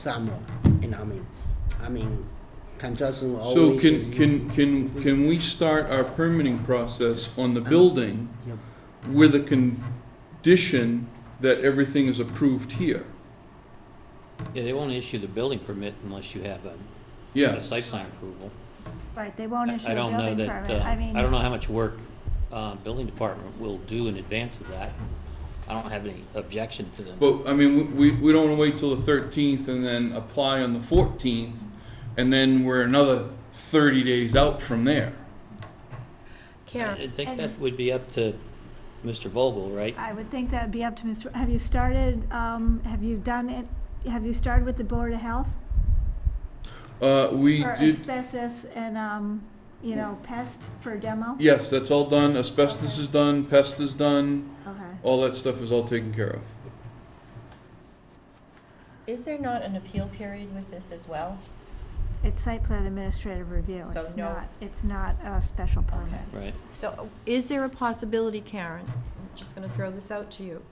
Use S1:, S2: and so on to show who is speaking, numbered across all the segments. S1: summer, and I mean, I mean, construction always.
S2: So can, can, can, can we start our permitting process on the building
S1: Yep.
S2: with a condition that everything is approved here?
S3: Yeah, they won't issue the building permit unless you have a, a
S2: Yes.
S3: site plan approval.
S4: Right, they won't
S3: I-
S4: issue
S3: I
S4: a
S3: don't know
S4: building
S3: that,
S4: permit, I mean.
S3: uh, I don't know how much work, uh, building department will do in advance of that. I don't have any objection to them.
S2: But, I mean, we, we don't wanna wait till the thirteenth and then apply on the fourteenth, and then we're another thirty days out from there.
S5: Karen,
S3: I think
S4: And-
S3: that would be up to Mr. Vogel, right?
S4: I would think that'd be up to Mr., have you started, um, have you done it, have you started with the Board of Health?
S2: Uh, we
S4: For
S2: did,
S4: asbestos and, um, you know, pest for demo?
S2: yes, that's all done, asbestos is done, pest is done,
S4: Okay.
S2: all that stuff is all taken care of.
S5: is there not an appeal period with this as well?
S4: It's site plan administrative review,
S5: So
S4: it's
S5: no-
S4: not, it's not a special permit.
S5: Okay.
S3: Right,
S5: So is there a possibility, Karen, I'm just gonna throw this out to you,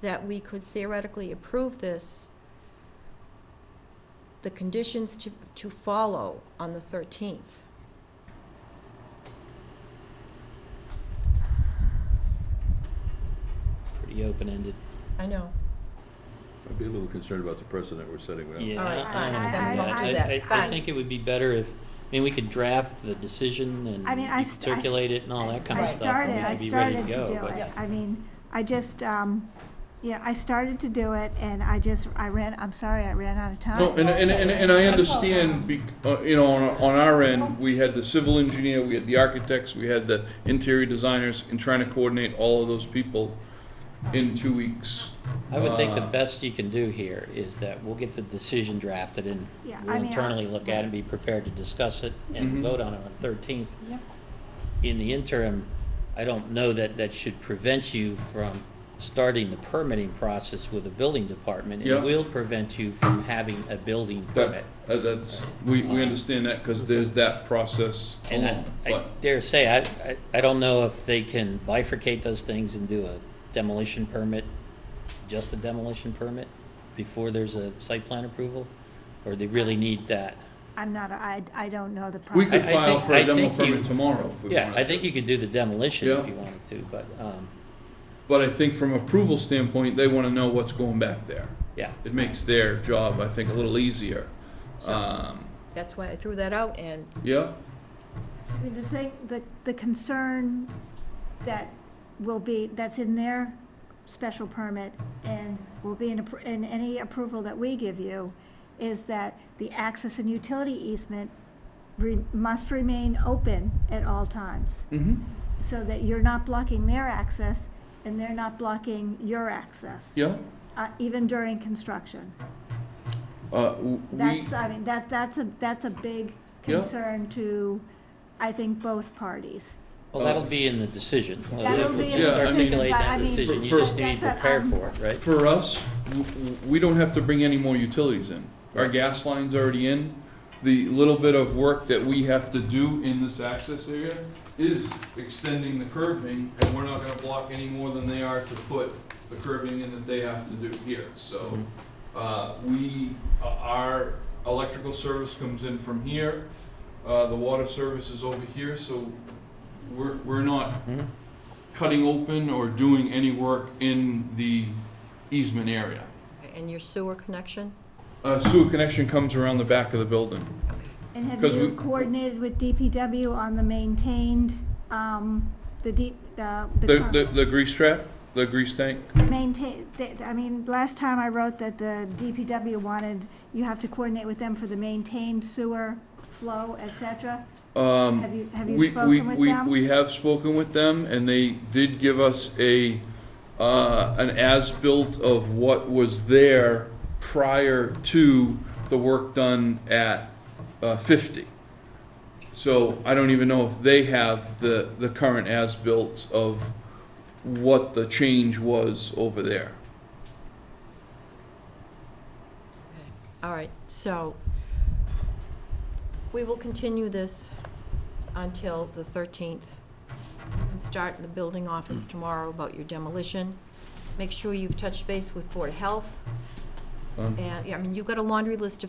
S5: that we could theoretically approve this, the conditions to, to follow on the thirteenth?
S3: pretty open-ended.
S5: I know,
S6: I'd be a little concerned about the precedent we're setting with.
S3: Yeah,
S5: All right,
S3: I- I
S5: fine.
S3: don't
S4: Then we
S3: know.
S4: won't do
S3: I-
S5: that.
S3: I- I
S5: Fine.
S3: think it would be better if, I mean, we could draft the decision and
S4: I mean, I
S3: you could
S4: st- I-
S3: circulate it and all that kind
S4: I
S3: of stuff. and
S4: started,
S3: we'd
S4: I
S3: be ready
S4: started to
S3: go,
S4: do
S3: but-
S4: it.
S5: Yep.
S4: I mean, I just, um, yeah, I started to do it and I just, I ran, I'm sorry, I ran out of time.
S2: No, and, and, and, and I understand, bec- uh, you know, on, on our end, we had the civil engineer, we had the architects, we had the interior designers, and trying to coordinate all of those people in two weeks.
S3: I would think the
S2: Uh,
S3: best you can do here is that we'll get the decision drafted and
S4: Yeah, I
S3: we'll
S4: mean, I-
S3: internally look at it and be prepared to discuss it
S2: Mhm.
S3: and vote on it on the thirteenth. In the interim, I don't know that that should prevent you from starting the permitting process with the building department.
S2: Yeah.
S3: It will prevent you from having a building
S2: That,
S3: permit.
S2: uh, that's, we, we understand that, cause there's that process
S3: And
S2: alone,
S3: I- I
S2: but,
S3: dare say, I, I- I don't know if they can bifurcate those things and do a demolition permit, just a demolition permit, before there's a site plan approval, or they really need that.
S4: I'm not, I, I don't know the process.
S2: we could
S3: I- I
S2: file
S3: think-
S2: for a
S3: I
S2: demo
S3: think you-
S2: permit tomorrow if we wanted to.
S3: Yeah, I think you could do the demolition
S2: Yeah.
S3: if you wanted to, but, um,
S2: But I think from approval standpoint, they wanna know what's going back there.
S3: yeah.
S2: It makes their job, I think, a little easier.
S5: So-
S2: Um,
S5: that's why I threw that out, and
S2: yeah,
S4: I mean, the thing, the, the concern that will be, that's in their special permit and will be in, appro- in any approval that we give you, is that the access and utility easement re, must remain open at all times,
S2: mm-hmm,
S4: so that you're not blocking their access and they're not blocking your access.
S2: yeah.
S4: Uh, even during construction.
S2: Uh, w- we,
S4: That's, I mean, that, that's a, that's a big
S2: Yeah.
S4: concern to, I think, both parties.
S2: Um,
S3: Well, that'll be in the decision.
S4: That'll be
S2: in the Yeah, I mean-
S3: Articulate
S4: but I
S3: that
S4: mean-
S3: decision, you
S2: For-
S3: just need to
S4: That's a-
S3: prepare
S4: um,
S3: for it, right?
S2: for us, w- w- we don't have to bring any more utilities in. Our gas line's already in. The little bit of work that we have to do in this access area is extending the curbing, and we're not gonna block any more than they are to put the curbing in that they have to do here, so. Uh, we, uh, our electrical service comes in from here, uh, the water service is over here, so we're, we're not
S3: Mhm.
S2: cutting open or doing any work in the easement area.
S5: and your sewer connection?
S2: Uh, sewer connection comes around the back of the building.
S4: And have
S2: 'Cause
S4: you
S2: we-
S4: coordinated with DPW on the maintained, um, the deep, the, the
S2: The,
S4: con-
S2: the, the grease trap, the grease tank,
S4: maintain, that- I mean, last time I wrote that the DPW wanted, you have to coordinate with them for the maintained sewer flow, et cetera.
S2: um.
S4: Have you, have you
S2: We, we,
S4: spoken with
S2: we,
S4: them?
S2: we have spoken with them, and they did give us a, uh, an as-built of what was there prior to the work done at, uh, fifty. So I don't even know if they have the, the current as-built of what the change was over there.
S5: All right, so we will continue this until the 13th and start in the building office tomorrow about your demolition. Make sure you've touched base with Board of Health.
S2: Um,
S5: And, yeah, I mean, you've got a laundry list of